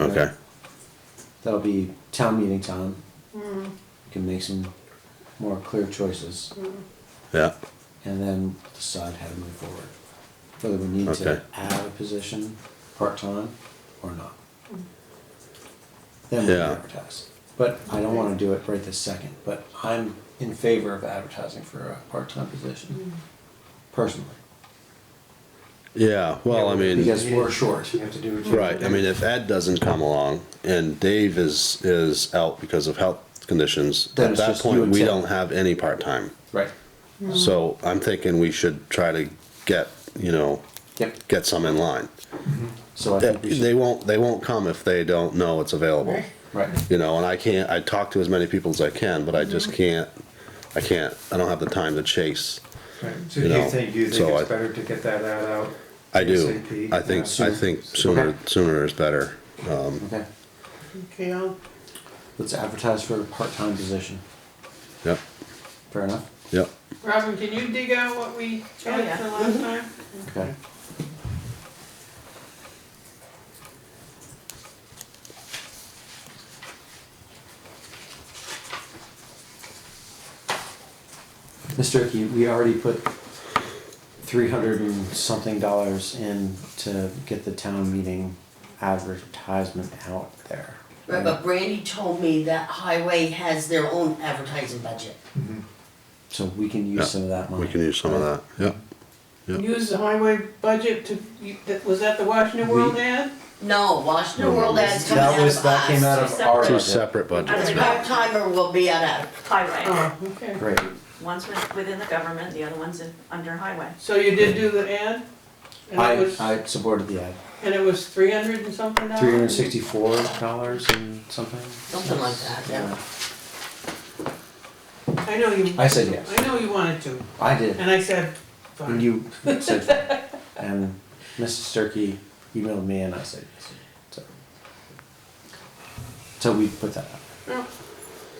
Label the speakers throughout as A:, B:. A: Okay.
B: That'll be town meeting time. You Can make some more clear choices
A: Yeah.
B: and then decide how to move forward. Whether we need
A: Okay.
B: to add a position, part-time or not. Then we
A: Yeah.
B: advertise. But I don't wanna do it right this second, but I'm in favor of advertising for a part-time position, personally.
A: Yeah. Well, I mean,
B: Because we're short.
C: You have to do what you.
A: right. I mean, if Ed doesn't come along and Dave is is out because of health conditions,
B: Then
A: at
B: it's
A: that
B: just you
A: point
B: and
A: we
B: Ted.
A: don't have any part time.
B: Right.
A: So I'm thinking we should try to get you know
B: Yep,
A: get some in line.
B: so I
A: They,
B: think we
A: they
B: should,
A: won't they won't come if they don't know it's available.
C: Right.
B: right.
A: You know, and I can't. I talk to as many people as I can, but I just
B: Mm-hmm.
A: can't. I can't. I don't have the time to chase.
C: Right, so
A: You
C: you
A: know,
C: think, you think
A: so I-
C: it's better to get that ad out?
A: I do.
C: ASAP?
A: I think.
C: Yeah.
A: I think sooner
B: Okay.
A: sooner is better. Um,
B: Okay,
D: Okay, I'll,
B: let's advertise for a part-time position.
A: Yep,
B: Fair enough?
A: yep.
D: Robin, can you dig out what we
E: Oh, yeah.
D: had for last time?
B: Okay. Mr. Icky, we already put three hundred and something dollars in to get the town meeting advertisement out there.
E: Right, but Brandy told me that highway has their own advertising budget.
B: So we can
A: Yeah,
B: use some of that money.
A: We can use some of that, yep. Yep.
D: Use the highway budget to, you- that- was that the Washington World
B: We-
D: ad?
E: No, Washington World ads coming
B: That
E: out of
B: was,
E: us.
B: that came out of our
A: Two
B: budget.
A: separate budgets.
E: The part-timer will be out of,
F: highway.
D: Oh, okay.
B: Great,
F: One's with- within the government, the other one's in, under highway.
D: So you did do the ad? And it
B: I,
D: was, Uh,
B: I supported the ad.
D: and it was three hundred and something dollars?
B: Three hundred sixty-four dollars and something?
E: something like that, yeah.
B: Yeah.
D: I know you.
B: I said yes.
D: I know you wanted to,
B: I did,
D: and I said,
B: and
D: fine.
B: you said, and Mrs. Sturkey emailed me and I said, yes. so. So we put that
D: Yeah.
B: out.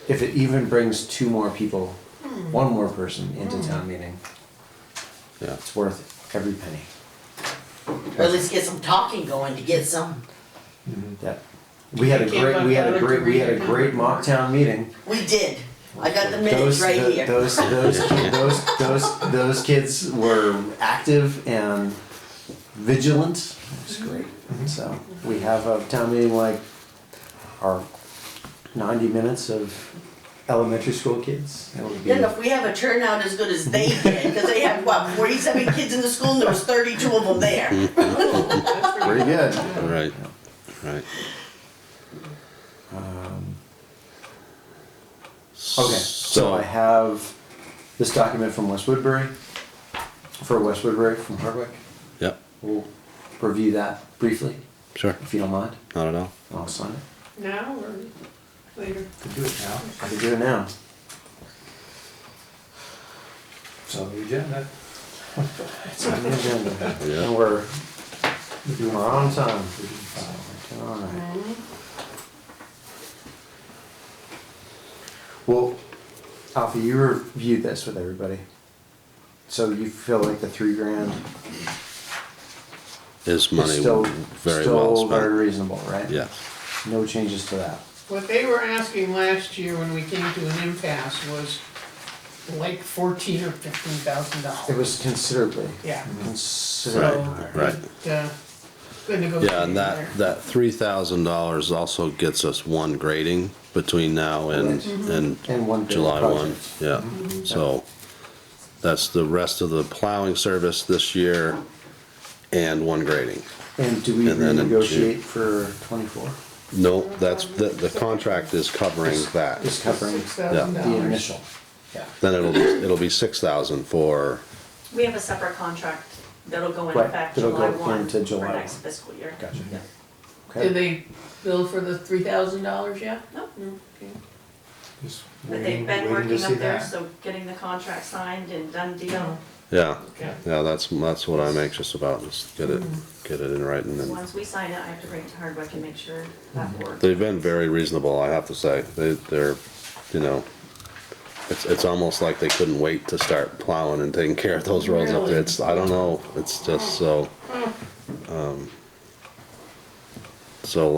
B: If it even brings two more people,
D: Mm.
B: one more person into town meeting,
A: Yeah,
B: it's worth every penny.
E: Or at least get some talking going to get some,
B: That, we had a
D: I can't
B: great, we had a
D: bother to
B: great, we
D: read
B: had a
D: it.
B: great mock town meeting.
E: we did, I got the minutes
B: Those,
E: right
B: tho-
E: here.
B: those, those, ki- those, those, those kids were active and vigilant. It's
E: Mm-hmm.
B: great. So we have a town meeting like our ninety minutes of elementary school kids. That would be
E: Then if we have a turnout as good as they did, cause they had, what, forty-seven kids in the school and there was thirty-two of them there.
D: That's
B: pretty good.
A: right, right.
B: Um,
A: Okay,
B: Okay, so I have this document from West Woodbury, for West Woodbury from Hardwick.
A: Yep,
B: We'll review that briefly,
A: sure,
B: if you don't mind.
A: not at all.
B: I'll sign it.
D: Now or later?
C: To do it now,
B: I can do it now.
C: it's on the agenda.
B: It's on the agenda.
A: Yeah.
B: And we're,
C: We do it
B: we're
C: now.
B: on time. Alright. Well, Alfie, you reviewed this with everybody. So you feel like the three grand
A: Is
B: is
A: money
B: still,
A: very well
B: still very
A: spent?
B: reasonable, right?
A: Yeah,
B: No changes to that.
D: What they were asking last year when we came to an impasse was like fourteen or fifteen thousand dollars.
B: It was considerably,
D: Yeah.
B: considerably
D: So.
B: higher.
A: right.
D: uh, Good negotiating
A: yeah, and
D: there.
A: that, that three thousand dollars also gets us one grading between now and, and
B: And one big
A: July one,
B: project.
A: yeah. So that's the rest of the plowing service this year and one grading.
B: And do we
A: And then in June.
B: renegotiate for twenty-four?
A: No, that's, the, the contract is covering
B: Just
A: that.
B: covering
D: Six thousand
A: Yeah.
B: the
D: dollars.
B: initial. Yeah.
A: Then it'll be, it'll be six thousand for,
F: We have a separate contract that'll go in
B: Right,
F: effect
B: that'll
F: July
B: go
F: one
B: into
F: for
B: July
F: next
B: one.
F: fiscal year.
B: Gotcha.
F: Yeah.
B: Okay.
D: Did they bill for the three thousand dollars yet?
F: No,
D: Okay.
C: Just
F: but
C: waiting-
F: they've been
C: waiting to
F: working
C: see
F: up there,
C: that.
F: so getting the contract signed and done deal.
A: yeah,
D: Okay.
A: yeah, that's, that's what I'm anxious about, is get it, get it in writing
C: Mm-hmm.
A: and.
F: Once we sign it, I have to bring it to Hardwick and make sure that works.
A: They've been very reasonable, I have to say. They, they're, you know, it's, it's almost like they couldn't wait to start plowing and taking care of those roads up there. It's, I don't know, it's just so, um, so